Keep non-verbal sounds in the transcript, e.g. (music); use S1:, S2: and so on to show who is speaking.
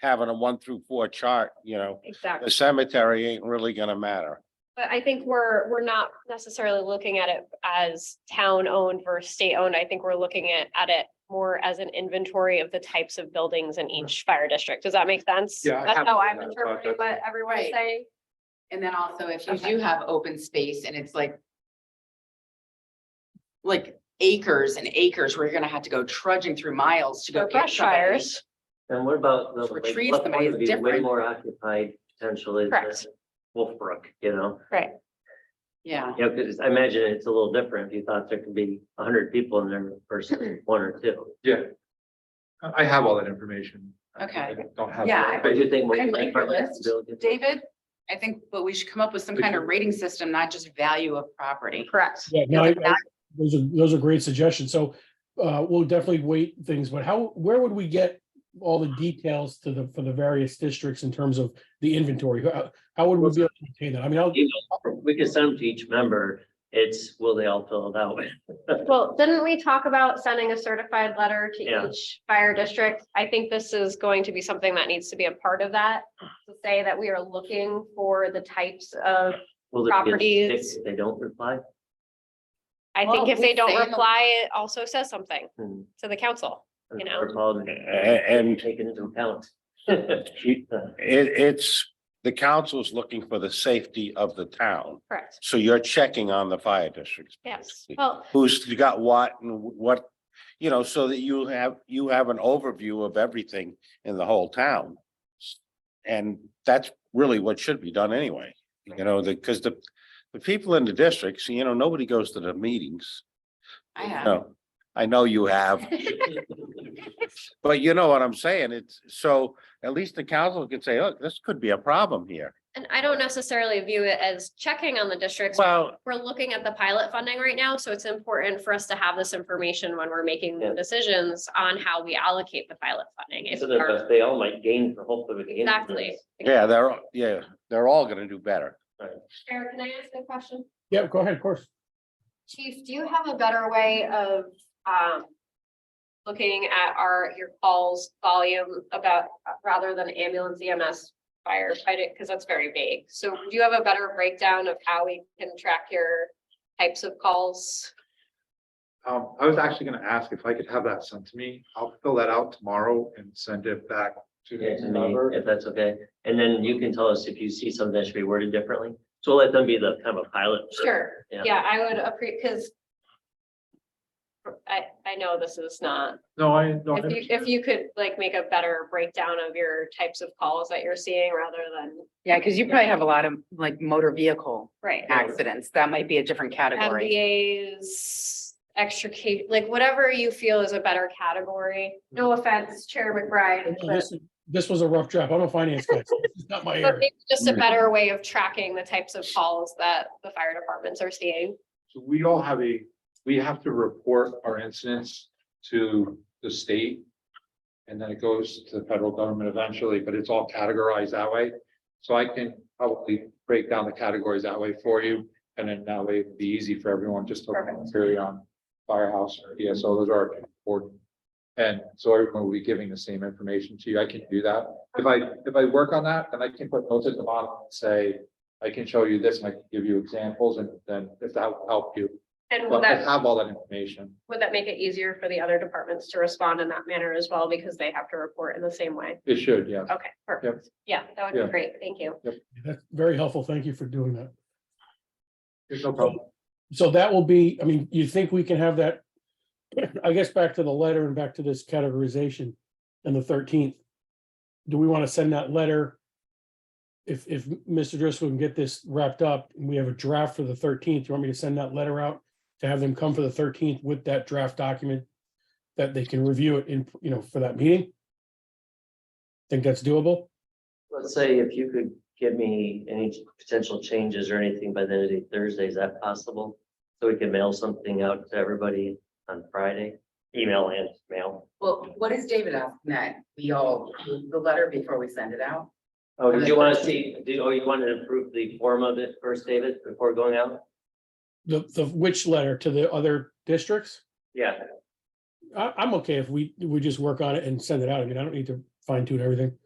S1: having a one through four chart, you know, the
S2: Exactly.
S1: cemetery ain't really gonna matter.
S2: But I think we're, we're not necessarily looking at it as town-owned versus state-owned. I think we're looking at, at it more as an inventory of the types of buildings in each fire district. Does that make sense?
S3: Yeah, I
S2: That's
S3: have
S2: how
S3: done
S2: I'm
S3: that, but
S2: interpreting
S3: that's-
S2: what everyone's
S4: Right.
S2: saying.
S4: And then also if you
S2: Okay.
S4: do have open space and it's like. Like acres and acres where you're gonna have to go trudging through miles to go.
S2: Or
S4: get
S2: brush
S4: somebody.
S2: fires.
S5: And what about the?
S4: For
S5: like,
S4: trees,
S5: Left
S4: the
S5: Point
S4: money is
S5: would be way
S4: different.
S5: more occupied potential is
S2: Correct.
S5: uh, Wolfbrook, you know?
S2: Right.
S4: Yeah,
S5: Yeah, because I imagine it's a little different if you thought there could be a hundred people in there
S4: (clears throat)
S5: versus one or two.
S3: Yeah. I I have all that information. I-
S4: Okay.
S3: I Don't have.
S4: Yeah,
S3: that,
S5: But you think.
S4: I like your list.
S5: buildings-
S4: David, I think, but we should come up with some kind of rating system, not just value of property.
S2: Correct.
S6: Yeah, no, I-
S2: Yeah.
S6: I- those are, those are great suggestions. So uh, we'll definitely wait things, but how, where would we get all the details to the, for the various districts in terms of the inventory? How how would we be able to obtain that? I mean, I'll,
S5: We could send them to each member. It's, will they all fill it out? (laughs)
S2: Well, didn't we talk about sending a certified letter
S5: Yeah.
S2: to each fire district? I think this is going to be something that needs to be a part of that. To say that we are looking for the types of,
S5: Will there be a stick
S2: Properties.
S5: if They don't reply?
S2: I think
S4: Well,
S2: if they
S4: we say
S2: don't
S4: in the-
S2: reply, it also says something
S5: Hmm.
S2: to the council. You know.
S5: Or call them,
S1: And
S5: Take it into account. Right, (laughs)
S4: (laughs)
S1: it, it's, the council's looking for the safety of the town.
S2: Correct.
S1: So you're checking on the fire districts.
S2: Yes.
S1: basically.
S2: Well,
S1: Who's got what and what, you know, so that you have, you have an overview of everything in the whole town. And that's really what should be done anyway, you know, the, because the, the people in the districts, you know, nobody goes to the meetings.
S4: I have,
S1: No, I know you have. But you know what I'm saying? It's, so at least the council can say, look, this could be a problem here.
S2: and I don't necessarily view it as checking on the districts.
S1: Well,
S2: We're looking at the pilot funding right now, so it's important for us to have this information when we're making
S5: Yeah.
S2: decisions on how we allocate the pilot funding. If
S5: So
S2: we are-
S5: that they all might gain, hopefully. we can influence.
S2: Exactly.
S1: yeah, they're, yeah, they're all gonna do better.
S2: Eric, can I ask a question?
S6: yeah, go ahead, of course.
S2: Chief, do you have a better way of, um, looking at our, your calls volume about, rather than ambulance EMS firefighting, because that's very vague. So do you have a better breakdown of how we can track your types of calls?
S3: Um, I was actually gonna ask if I could have that sent to me. I'll fill that out tomorrow and send it back to
S5: Yeah,
S3: the
S5: to me,
S3: member.
S5: if that's okay. And then you can tell us if you see something that should be worded differently. So we'll let them be the kind of a pilot. for-
S2: Sure,
S5: Yeah.
S2: yeah, I would appreciate, because I, I know this is not
S3: No, I, no,
S2: If you, if you could like make a better breakdown of your types of calls that you're seeing rather than.
S4: yeah, because you probably have a lot of like motor vehicle
S2: Right.
S4: accidents. That might be a different category.
S2: MBAs, extricate, like whatever you feel is a better category. No offense, Chair McBride, but
S6: This, this was a rough draft. I'm a finance guy. so This is not my
S2: (laughs) but
S6: area.
S2: maybe just a better way of tracking the types of calls that the fire departments are seeing.
S3: So we all have a, we have to report our incidents to the state. And then it goes to the federal government eventually, but it's all categorized that way. So I can probably break down the categories that way for you. And then that way it'd be easy for everyone just to
S2: Perfect.
S3: carry on firehouse or ESO, those are important. And so everyone will be giving the same information to you. I can do that. If I, if I work on that, then I can put notes at the bottom and say, I can show you this and I can give you examples and then if that will help you.
S2: And would
S3: But I
S2: that,
S3: have all that information.
S2: would that make it easier for the other departments to respond in that manner as well because they have to report in the same way?
S3: It should, yeah.
S2: Okay, perfect. Yeah, that would
S3: Yeah.
S2: be great. Thank you.
S6: That's very helpful. Thank you for doing that.
S3: There's no problem.
S6: So that will be, I mean, you think we can have that? I guess back to the letter and back to this categorization and the thirteenth. Do we want to send that letter? If, if Mr. Driscoll can get this wrapped up and we have a draft for the thirteenth, you want me to send that letter out? To have them come for the thirteenth with that draft document? That they can review it in, you know, for that meeting? Think that's doable?
S5: Let's say if you could give me any potential changes or anything by the end of the Thursday, is that possible? So we can mail something out to everybody on Friday, email and mail.
S4: Well, what is David asking that? We all, approve the letter before we send it out?
S5: Oh, do you want to see, do, oh, you want to approve the form of it first, David, before going out?
S6: The, the, which letter to the other districts?
S5: Yeah,
S6: I, I'm okay if we, we just work on it and send it out. I mean, I don't need to fine tune everything.